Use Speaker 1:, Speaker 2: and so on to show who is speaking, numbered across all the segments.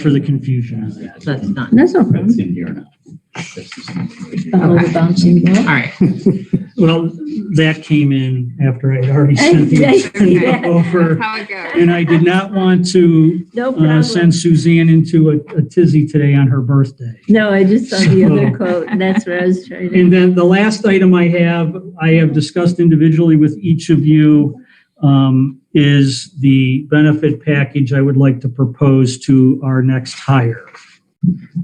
Speaker 1: for the confusion.
Speaker 2: That's not,
Speaker 3: That's no problem.
Speaker 4: That's in here now. That's just in here.
Speaker 3: The whole bouncing
Speaker 2: all
Speaker 3: ball.
Speaker 2: right.
Speaker 1: Well, that came in after I had already sent the agenda over.
Speaker 5: How it goes.
Speaker 1: And I did not want to
Speaker 3: No
Speaker 1: uh,
Speaker 3: problem.
Speaker 1: send Suzanne into a- a tizzy today on her birthday.
Speaker 3: No, I just saw the other quote. and That's what I was trying to.
Speaker 1: And then the last item I have, I have discussed individually with each of you, um, is the benefit package I would like to propose to our next hire.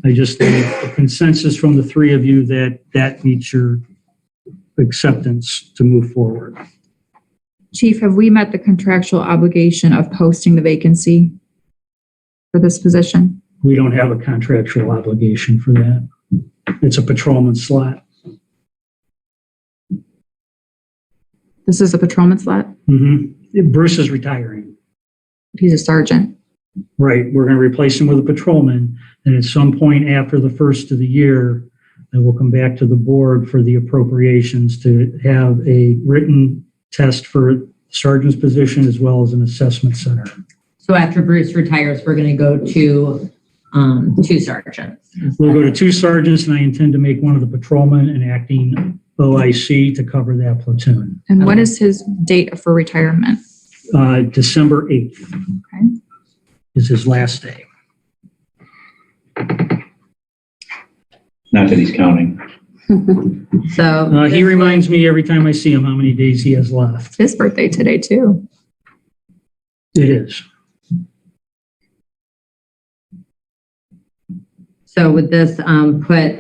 Speaker 1: I just need a consensus from the three of you that that meets your acceptance to move forward.
Speaker 5: Chief, have we met the contractual obligation of posting the vacancy for this position?
Speaker 1: We don't have a contractual obligation for that. It's a patrolman slot.
Speaker 5: This is a patrolman slot.
Speaker 1: Mhm. Bruce is retiring.
Speaker 5: He's a sergeant.
Speaker 1: Right, we're going to replace him with a patrolman, and at some point after the first of the year, I will come back to the board for the appropriations to have a written test for sergeant's position as well as an assessment center.
Speaker 2: So after Bruce retires, we're going to go to, um, two sergeants.
Speaker 1: We'll go to two sergeants, and I intend to make one of the patrolmen an acting OIC to cover that platoon.
Speaker 5: And what
Speaker 2: Okay.
Speaker 5: is his date for retirement?
Speaker 1: Uh, December 8th
Speaker 5: Okay.
Speaker 1: is his last day.
Speaker 4: Not that he's counting.
Speaker 2: So.
Speaker 1: Uh, He reminds me every time I see him how many days he has left.
Speaker 5: It's his birthday today too.
Speaker 1: It is.
Speaker 2: So would this um, put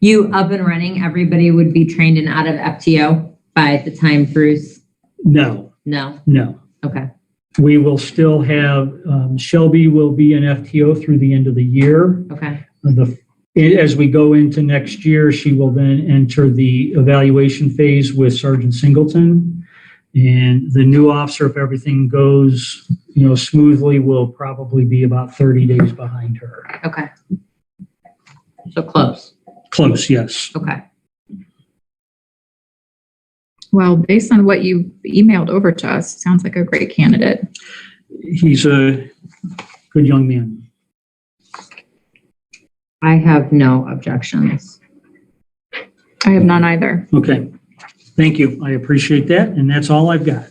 Speaker 2: you up and running? Everybody would be trained and out of FTO by the time Bruce?
Speaker 1: No,
Speaker 2: No?
Speaker 1: no.
Speaker 2: Okay.
Speaker 1: We will still have, um, Shelby will be in FTO through the end of the year.
Speaker 2: Okay.
Speaker 1: The, as we go into next year, she will then enter the evaluation phase with Sergeant Singleton. And the new officer, if everything goes, you know, smoothly, will probably be about 30 days behind her.
Speaker 2: Okay. So close.
Speaker 1: Close, yes.
Speaker 2: Okay.
Speaker 5: Well, based on what you emailed over to us, sounds like a great candidate.
Speaker 1: He's a good young man.
Speaker 2: I have no objections.
Speaker 5: I have none either.
Speaker 1: Okay. Thank you. I appreciate that. And that's all I've got.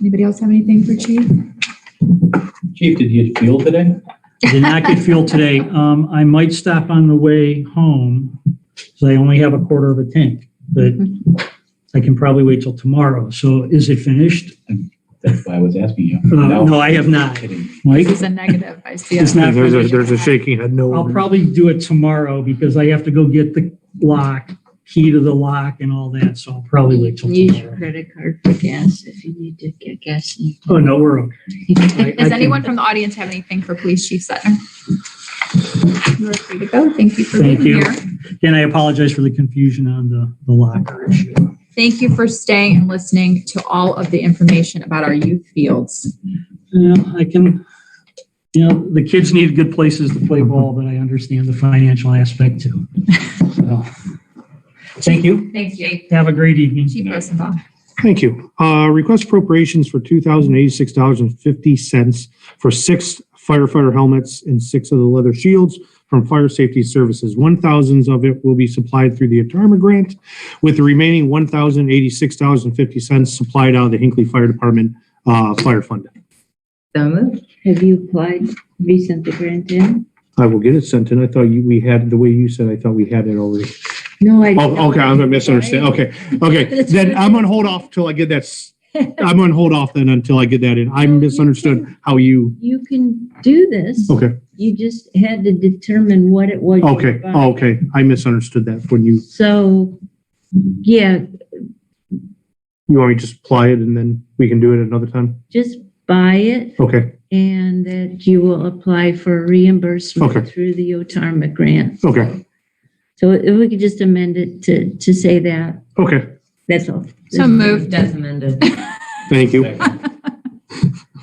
Speaker 5: Anybody else have anything for Chief?
Speaker 4: Chief, did you feel today?
Speaker 1: I Did not get fuel today. Um, I might stop on the way home, so I only have a quarter of a tank, but I can probably wait till tomorrow. So is it finished?
Speaker 4: That's why I was asking you.
Speaker 1: Uh, No, I have not.
Speaker 4: Kidding.
Speaker 1: Mike?
Speaker 5: This is a negative. I see
Speaker 1: It's
Speaker 5: it.
Speaker 1: not
Speaker 6: There's a,
Speaker 1: finished.
Speaker 6: there's a shaking head no.
Speaker 1: I'll probably do it tomorrow because I have to go get the lock, key to the lock and all that, so I'll probably wait till
Speaker 3: Use your
Speaker 1: tomorrow.
Speaker 3: credit card for gas if you need to get gas. in.
Speaker 1: Oh, no, we're okay. I- I
Speaker 5: Does
Speaker 1: can-
Speaker 5: anyone from the audience have anything for Police Chief Sutton? You are free to go. Thank you for being
Speaker 1: Thank you.
Speaker 5: here.
Speaker 1: And I apologize for the confusion on the, the locker issue.
Speaker 5: Thank you for staying and listening to all of the information about our youth fields.
Speaker 1: Yeah, I can, you know, the kids need good places to play ball, but I understand the financial aspect too. So, Thank you.
Speaker 5: Thanks, Jake.
Speaker 1: Have a great evening.
Speaker 5: Chief Rosenbaum.
Speaker 6: Thank you. Uh, request appropriations for two thousand eighty-six dollars and fifty cents for six firefighter helmets and six of the leather shields from Fire Safety Services. One thousands of it will be supplied through the ATARMA grant, with the remaining one thousand eighty-six dollars and fifty cents supplied out of the Hinckley Fire Department, uh, fire fund.
Speaker 2: So moved.
Speaker 3: Have you applied? Have you sent the grant in?
Speaker 6: I will get it sent in. I thought you, we had, the way you said, I thought we had it already.
Speaker 3: No, I.
Speaker 6: Oh, okay, I'm gonna misunderstand. Okay, okay. Then I'm gonna hold off till I get that. s- I'm gonna hold off then until I get that in. I misunderstood how you,
Speaker 3: You can do this.
Speaker 6: okay,
Speaker 3: You just had to determine what it was. you were
Speaker 6: okay,
Speaker 3: buying.
Speaker 6: oh, okay. I misunderstood that when you,
Speaker 3: So, yeah,
Speaker 6: you want me to just apply it and then we can do it another time?
Speaker 3: just buy it
Speaker 6: Okay,
Speaker 3: and that you will apply for reimbursement
Speaker 6: Okay.
Speaker 3: through the OTARMA grant.
Speaker 6: okay,
Speaker 3: So if we could just amend it to, to say that,
Speaker 6: okay.
Speaker 3: that's all.
Speaker 5: So moved.
Speaker 2: As amended.
Speaker 6: Thank you.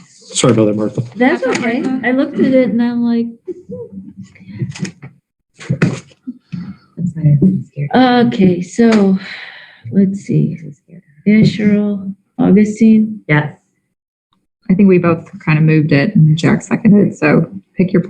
Speaker 6: Sorry about that, Martha.
Speaker 3: That's okay. I looked at it and I'm like,
Speaker 2: That's not even scary.
Speaker 3: okay, so, let's see. Asherle, Augustine,
Speaker 2: Yes.
Speaker 5: I think we both kind of moved it and Jack seconded. So pick your